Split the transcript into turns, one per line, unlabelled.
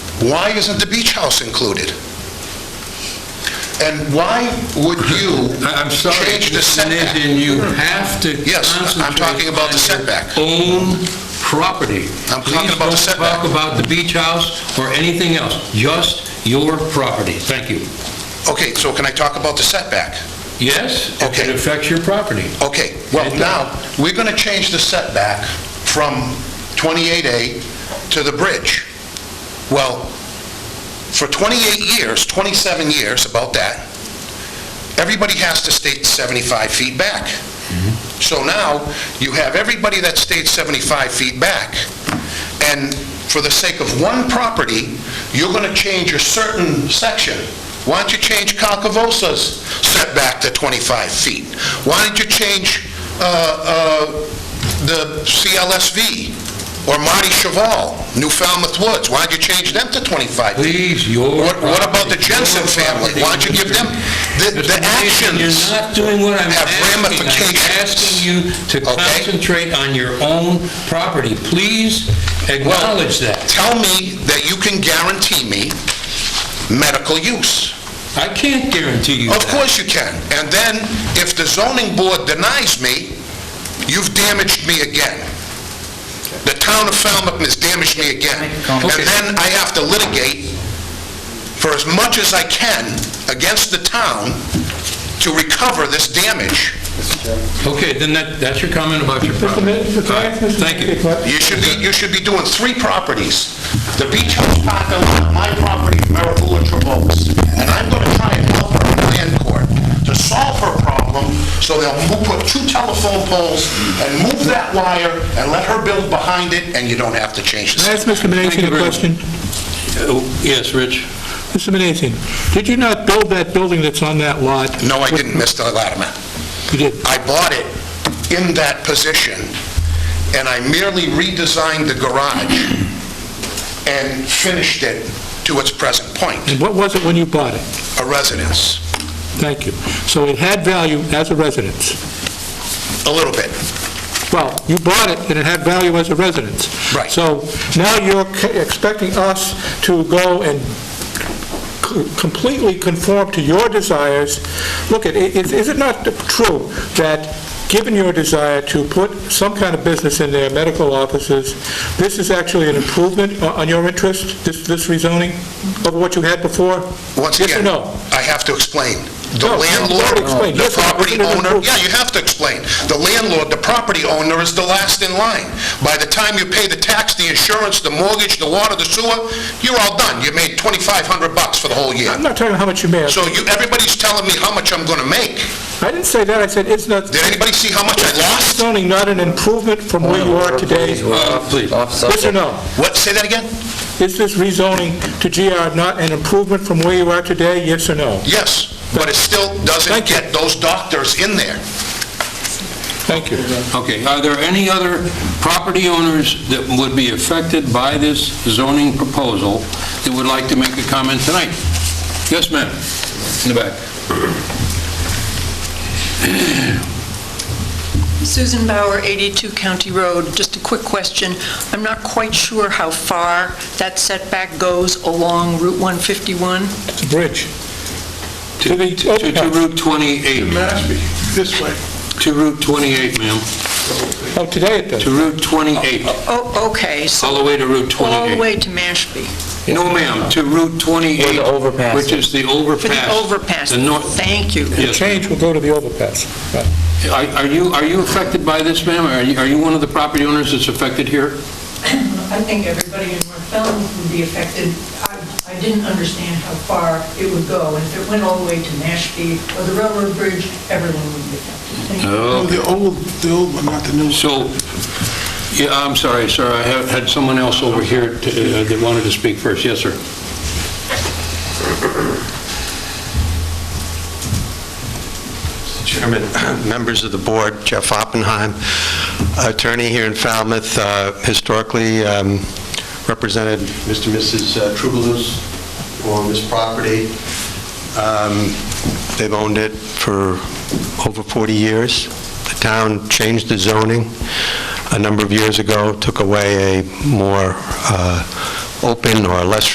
Why isn't the beach house included? And why would you
I- I'm sorry,
change the
Mr.
setback?
Nizin, you have to
Yes, I'm
concentrate
talking about the
on your
setback.
Own property.
I'm talking about the setback.
Please don't talk about the beach house or anything else, just your property. Thank you.
Okay, so can I talk about the setback?
Yes, if
Okay.
it affects your property.
Okay, well,
It does.
now, we're going to change the setback from 28A to the bridge. Well, for 28 years, 27 years, about that, everybody has to stay 75 feet back. So now, you have everybody that stayed 75 feet back, and for the sake of one property, you're going to change a certain section. Why don't you change Calcavosa's setback to 25 feet? Why don't you change uh, uh, the CLSV or Marty Cheval, New Falmouth Woods? Why don't you change them to 25 feet?
Please, your
What what about the
property,
Jensen
your
family?
property,
Why don't you give them, the
Mr.
the
Nation,
actions...
You're not doing what I'm
have
asking. I'm
ramifications.
asking you to
Okay.
concentrate on your own property. Please acknowledge that.
Tell me that you can guarantee me medical use.
I can't guarantee you
Of
that.
course you can. And then, if the zoning board denies me, you've damaged me again. The town of Falmouth has damaged me again. And
Okay.
then I have to litigate for as much as I can against the town to recover this damage.
Okay, then that, that's your comment about your
Mr.
property.
Mi- Mr. Fine, Mr.
Thank you.
Kickbutt.
You should be, you should be doing three properties. The beach house parking lot, my property, Miracle and Trevose. And I'm gonna try and help her in land court to solve her problem, so they'll mo- put two telephone poles and move that wire and let her build behind it, and you don't have to change
Can I
this.
ask Mr.
you
Menassion a
very much.
question?
Oh, Yes, Rich?
Mr. Menassion, did you not build that building that's on that lot?
No, I didn't, Mr. Latimer.
You did.
I bought it in that position, and I merely redesigned the garage and finished it to its present point,
And what was it when you bought it?
a residence.
Thank you. So it had value as a residence.
A little bit.
Well, you bought it and it had value as a residence.
Right.
So now you're c- expecting us to go and c- completely conform to your desires. Look, it- it- is it not true that, given your desire to put some kind of business in there, medical offices, this is actually an improvement o- on your interest, this this rezoning, over what you had before?
Once
Yes or
again,
no?
I have to explain. The
No, you already
landlord,
explained.
the
Yes, I
property
didn't
owner,
approve.
yeah, you have to explain. The landlord, the property owner is the last in line. By the time you pay the tax, the insurance, the mortgage, the water, the sewer, you're all done. You made 2,500 bucks for the whole year.
I'm not talking how much you made.
So you, everybody's telling me how much I'm gonna make.
I didn't say that, I said, it's not,
Did anybody see how much I lost?
zoning not an improvement from where
Oh,
you are today?
Uh, Please.
Yes or no?
What, say that again?
Is this rezoning to GR not an improvement from where you are today, yes or no?
Yes, but it still doesn't
Thank you.
get those doctors in there.
Thank you.
Okay, are there any other property owners that would be affected by this zoning proposal that would like to make a comment tonight? Yes, ma'am, in the back.
Susan Bauer, 82 County Road. Just a quick question. I'm not quite sure how far that setback goes along Route 151.
It's a bridge.
To
the
to-
open
to
house.
Route 28. This way. To Route 28, ma'am,
Oh, today it does.
to Route 28,
Oh, okay,
all
so
the way to Route
all the
28.
way to Mashpee.
No, ma'am, to Route 28.
Where the overpass
Which is the overpass.
For the overpass.
The north,
Thank you.
The
yes.
change will go to the overpass. Right.
Are are you, are you affected by this, ma'am? Are you, are you one of the property owners that's affected here?
I think everybody in North Falmouth would be affected. I I didn't understand how far it would go, and if it went all the way to Mashpee or the railroad bridge, everyone would be affected. Thank you.
Oh,
No, the old, the old one, not the new.
So, yeah, I'm sorry, sir, I have- had someone else over here to- uh, that wanted to speak first. Yes, sir.
Chairman, members of the board, Jeff Oppenheim, attorney here in Falmouth, uh, historically um, represented Mr. and Mrs. Troubadour's on this property. Um, They've owned it for over 40 years. The town changed the zoning a number of years ago, took away a more uh, open or less